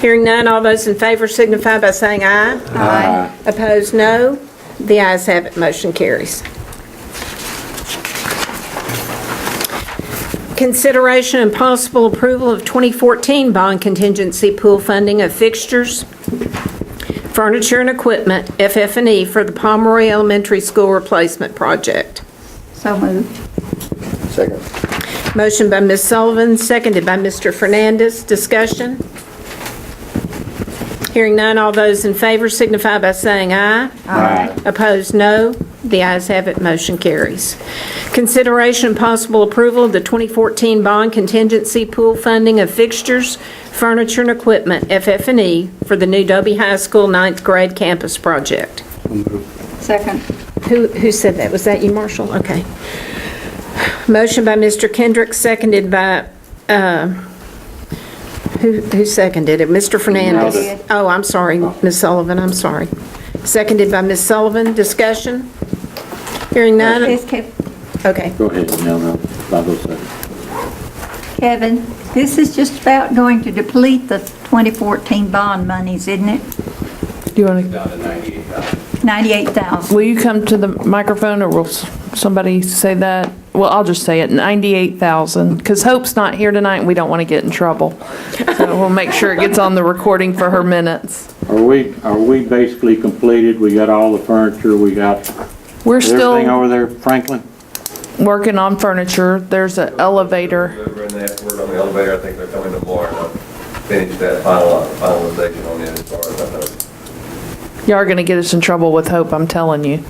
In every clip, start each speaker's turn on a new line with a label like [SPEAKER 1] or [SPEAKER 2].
[SPEAKER 1] Hearing none, all those in favor signify by saying aye. Aye. Opposed, no. The ayes have it, motion carries. Consideration and possible approval of 2014 bond contingency pool funding of fixtures, furniture and equipment, FF&E, E, for the Pomeroy Elementary School replacement project.
[SPEAKER 2] So moved.
[SPEAKER 3] Second.
[SPEAKER 1] Motion by Ms. Sullivan, seconded by Mr. Fernandez. Discussion? Hearing none, all those in favor signify by saying aye. Aye. Opposed, no. The ayes have it, motion carries. Consideration and possible approval of the 2014 bond contingency pool funding of fixtures, furniture, and equipment, FF&E, for the new Dobie High School ninth grade campus project.
[SPEAKER 2] Second.
[SPEAKER 1] Who, who said that? Was that you, Marshall? Okay. Motion by Mr. Kendrick, seconded by, uh, who, who seconded it? Mr. Fernandez?
[SPEAKER 2] I did.
[SPEAKER 1] Oh, I'm sorry, Ms. Sullivan, I'm sorry. Seconded by Ms. Sullivan. Discussion? Hearing none?
[SPEAKER 2] This Kev-
[SPEAKER 1] Okay.
[SPEAKER 3] Go ahead, no, no, five oh seven.
[SPEAKER 2] Kevin, this is just about going to deplete the 2014 bond monies, isn't it?
[SPEAKER 4] Do you want to,
[SPEAKER 2] 98,000.
[SPEAKER 4] will you come to the microphone or will s- somebody say that? Well, I'll just say it, 98,000, because Hope's not here tonight and we don't want to get in trouble. So we'll make sure it gets on the recording for her minutes.
[SPEAKER 3] Are we, are we basically completed? We got all the furniture, we got is
[SPEAKER 4] We're
[SPEAKER 3] everything
[SPEAKER 4] still
[SPEAKER 3] over there, Franklin?
[SPEAKER 4] working on furniture. There's an elevator.
[SPEAKER 5] We're in that, we're on the elevator, I think they're coming tomorrow, and I'll finish that final, finalization on it as far as I know.
[SPEAKER 4] You are going to get us in trouble with Hope, I'm telling you.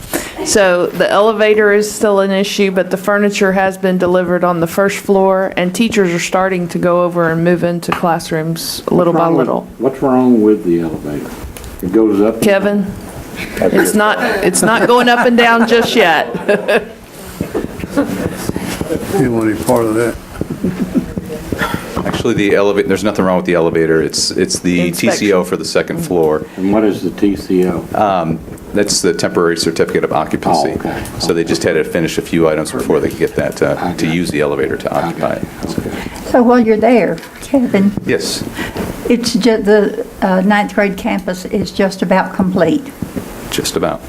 [SPEAKER 4] So the elevator is still an issue, but the furniture has been delivered on the first floor and teachers are starting to go over and move into classrooms little by little.
[SPEAKER 3] What's wrong with the elevator? It goes up?
[SPEAKER 4] Kevin, it's not, it's not going up and down just yet.
[SPEAKER 6] Didn't want any part of that.
[SPEAKER 7] Actually, the elevator, there's nothing wrong with the elevator. It's, it's the
[SPEAKER 4] Inspection.
[SPEAKER 7] TCO for the second
[SPEAKER 3] Mm-hmm.
[SPEAKER 7] floor.
[SPEAKER 3] And what is the TCO?
[SPEAKER 7] That's the temporary certificate of occupancy.
[SPEAKER 3] Oh, okay.
[SPEAKER 7] So they just had to finish a few items before they could get that,
[SPEAKER 3] I
[SPEAKER 7] uh, to
[SPEAKER 3] got
[SPEAKER 7] use the elevator to occupy it.
[SPEAKER 3] Okay.
[SPEAKER 2] So while you're there, Kevin,
[SPEAKER 7] Yes,
[SPEAKER 2] it's ju, the uh, ninth grade campus is just about complete.
[SPEAKER 7] just about.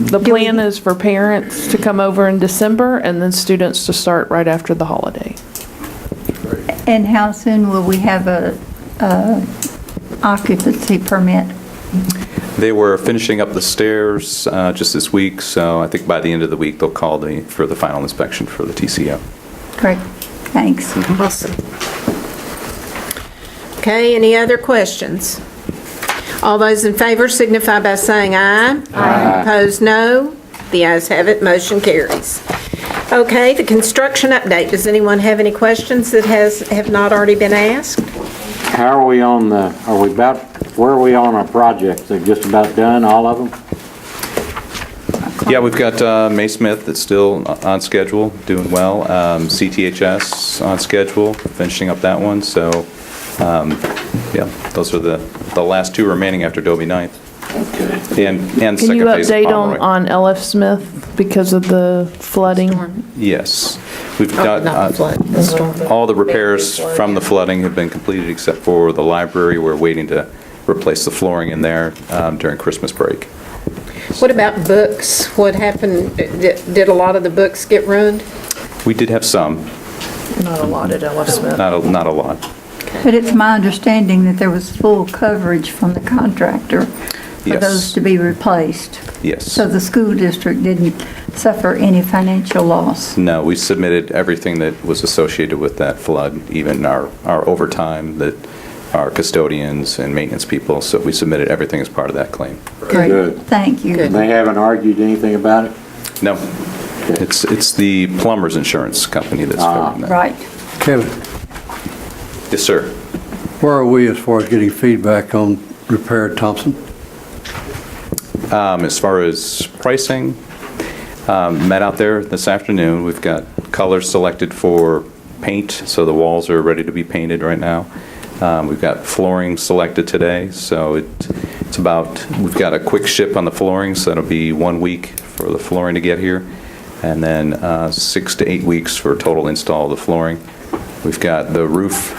[SPEAKER 4] The plan is for parents to come over in December and then students to start right after the holiday.
[SPEAKER 2] And how soon will we have a uh, occupancy permit?
[SPEAKER 7] They were finishing up the stairs uh, just this week, so I think by the end of the week, they'll call the, for the final inspection for the TCO.
[SPEAKER 2] Great, thanks.
[SPEAKER 1] Awesome. Okay, any other questions? All those in favor signify by saying aye. Aye. Opposed, no. The ayes have it, motion carries. Okay, the construction update. Does anyone have any questions that has, have not already been asked?
[SPEAKER 3] How are we on the, are we about, where are we on our projects? They're just about done, all of them?
[SPEAKER 7] Yeah, we've got uh, May Smith that's still on schedule, doing well. Um, CTHS on schedule, finishing up that one, so, um, yeah, those are the, the last two remaining after Dobie Ninth. And, and
[SPEAKER 4] Can you
[SPEAKER 7] second phase of
[SPEAKER 4] update on, on
[SPEAKER 7] Pomeroy.
[SPEAKER 4] LF Smith because of the flooding?
[SPEAKER 7] Yes. We've
[SPEAKER 1] Oh,
[SPEAKER 7] got,
[SPEAKER 1] Not the
[SPEAKER 7] uh,
[SPEAKER 1] flood, the storm.
[SPEAKER 7] all the repairs from the flooding have been completed except for the library. We're waiting to replace the flooring in there um, during Christmas break.
[SPEAKER 1] What about books? What happened, did did a lot of the books get ruined?
[SPEAKER 7] We did have some,
[SPEAKER 4] Not a lot at LF Smith.
[SPEAKER 7] not, a- not a lot.
[SPEAKER 2] But it's my understanding that there was full coverage from the contractor for
[SPEAKER 7] Yes.
[SPEAKER 2] those to be replaced.
[SPEAKER 7] Yes.
[SPEAKER 2] So the school district didn't suffer any financial loss.
[SPEAKER 7] No, we submitted everything that was associated with that flood, even our, our overtime, that our custodians and maintenance people, so we submitted everything as part of that claim.
[SPEAKER 3] Good.
[SPEAKER 2] Thank you.
[SPEAKER 3] They haven't argued anything about it?
[SPEAKER 7] No, it's, it's the plumber's insurance company that's covering that.
[SPEAKER 2] Right.
[SPEAKER 6] Kevin,
[SPEAKER 7] Yes, sir.
[SPEAKER 6] where are we as far as getting feedback on repair Thompson?
[SPEAKER 7] Um, As far as pricing, um, met out there this afternoon. We've got colors selected for paint, so the walls are ready to be painted right now. Um, We've got flooring selected today, so it- it's about, we've got a quick ship on the flooring, so that'll be one week for the flooring to get here, and then uh, six to eight weeks for total install of the flooring. We've got the roof